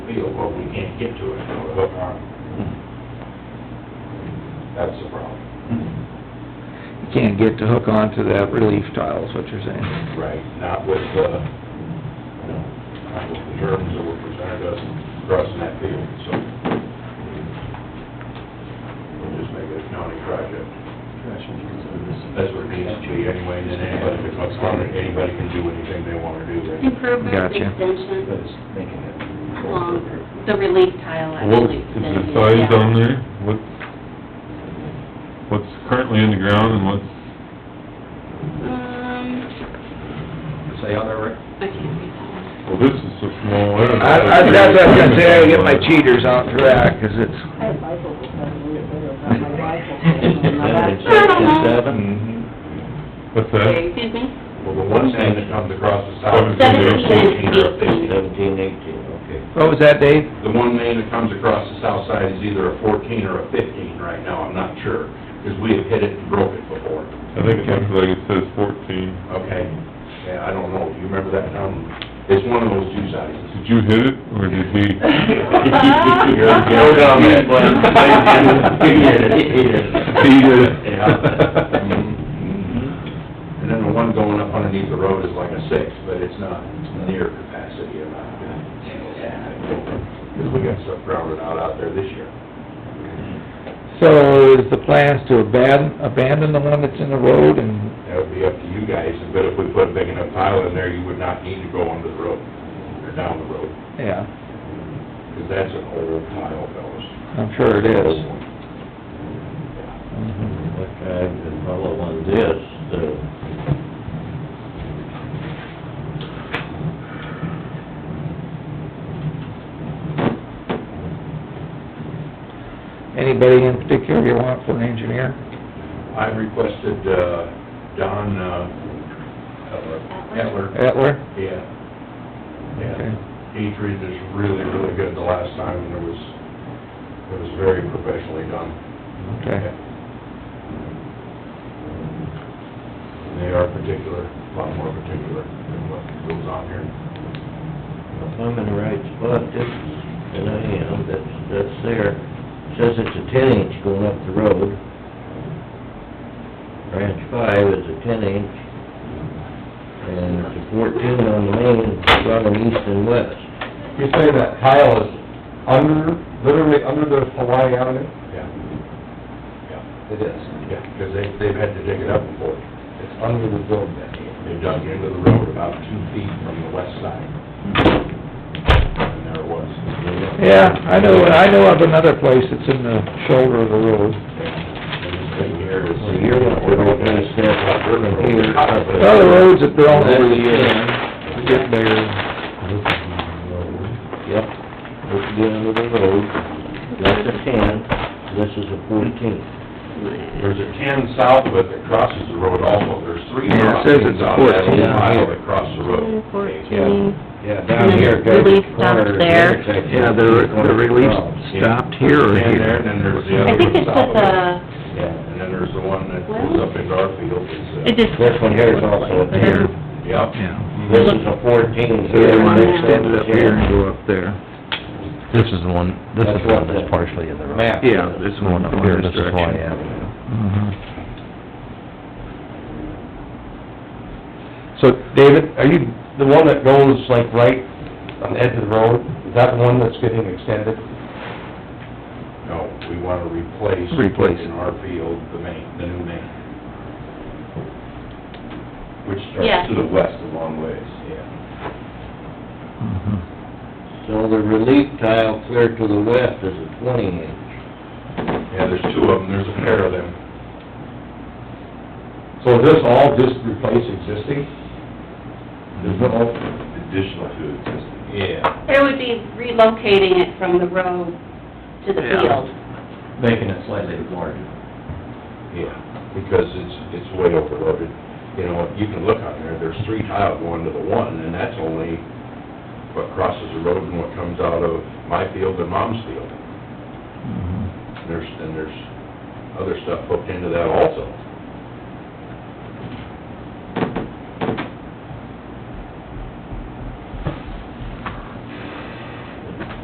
field, but we can't get to it with a hook arm. That's the problem. You can't get to hook onto that relief tile, is what you're saying. Right. Not with the, you know, not with the terms that were presented us crossing that field, so. We'll just make it a county project. That's what it needs to be anyway, and then anybody that comes on it, anybody can do anything they wanna do, right? Improvements, Gotcha. extensions But it's making it. along the relief tile What, actually is the extending. size yeah. on there? What, what's currently in the ground and what's, Um, Say on there, Rick? I can't read that one. well, this is so small, I don't know. I, I, that's what I was gonna say, I gotta get my cheaters out for that, 'cause it's, I had rifles, I had a little bit of my rifles in my back. What's that? Excuse me? Well, the one thing that comes across the south. Seventeen and eighteen. Seventeen, eighteen, okay. what was that, Dave? The one main that comes across the south side is either a fourteen or a fifteen right now, I'm not sure, because we have hit it and broke it before. I think it looks like it says fourteen. Okay, yeah, I don't know, Do you remember that, um, it's one of those two sizes. Did you hit it, or did he? Go down that way. He hit it, he hit it. He did it. And then the one going up underneath the road is like a six, but it's not near capacity or not. Because we got stuff grounded out out there this year. So is the plans to abandon, abandon the one that's in the road and, That would be up to you guys, but if we put a big enough tile in there, you would not need to go under the road, or down the road, yeah, because that's an old tile, fellas. I'm sure it is. Mhm. What I can follow on this, the Anybody in particular you want for an engineer? I requested, uh, Don, uh, Etler. Etler? Yeah. Okay. Yeah. He treated us really, really good the last time, and it was, it was very professionally done. Okay. And They are particular, a lot more particular than what goes on here. If I'm in the right spot, this, is- and I am, that's, that's there, says it's a ten inch going up the road. Branch five is a ten inch, and it's a fourteen on the main, running east and west. You say that tile is under, literally under the Hawaii Avenue? Yeah. Yeah. It is. Yeah, because they, they've had to dig it up before. It's under the road then. They dug into the road about two feet from the west side. And there it was. Yeah, I know, I know of another place that's in the shoulder of the road. And this thing here is. Well, you're not gonna finish that up from here. Well, the roads have grown over the That's- years. They Get bigger. Yep, this is the end of the road, that's a ten, this is a fourteen. There's a ten south of it that crosses the road also. There's three Yeah, it says crossings on that whole it's a 14 mile here. that cross the road. Yeah. Fourteen. Yeah, down here, guys, Relief stop corner, there. intersection. Yeah, the, the relief stopped here or And there, and here. then there's the I other think one it's south of at it. the, Yeah, and then there's the one that goes Well- up into our field. It's, uh, it just. This one here is also a Here, ten, Yep. yeah. Mm-hmm. this is a fourteen. So they want to extend it up here and go up there. This is the one, this is That's the what one that's the partially in the road. map Yeah, this one up here, this This is Hawaii direction. Avenue. So, David, are you, the one that goes like right on the edge of the road, is that the one that's getting extended? No, we wanna replace. Replace. In our field, the main, the new main. Which starts Yeah. to the west a long ways, yeah. So the relief tile clear to the west is a twenty inch. Yeah, there's two of them, there's a pair of them. So is this all just replace existing? There's no, Mm-hmm. Additional to existing. Yeah. There would be relocating it from the road to the Yeah. field. Making it slightly larger. Yeah, because it's, it's way overloaded. You know, you can look on there, there's three tile going to the one, and that's only what crosses the road and what comes out of my field and mom's Mm-hmm. field. There's, and there's other stuff hooked into that also.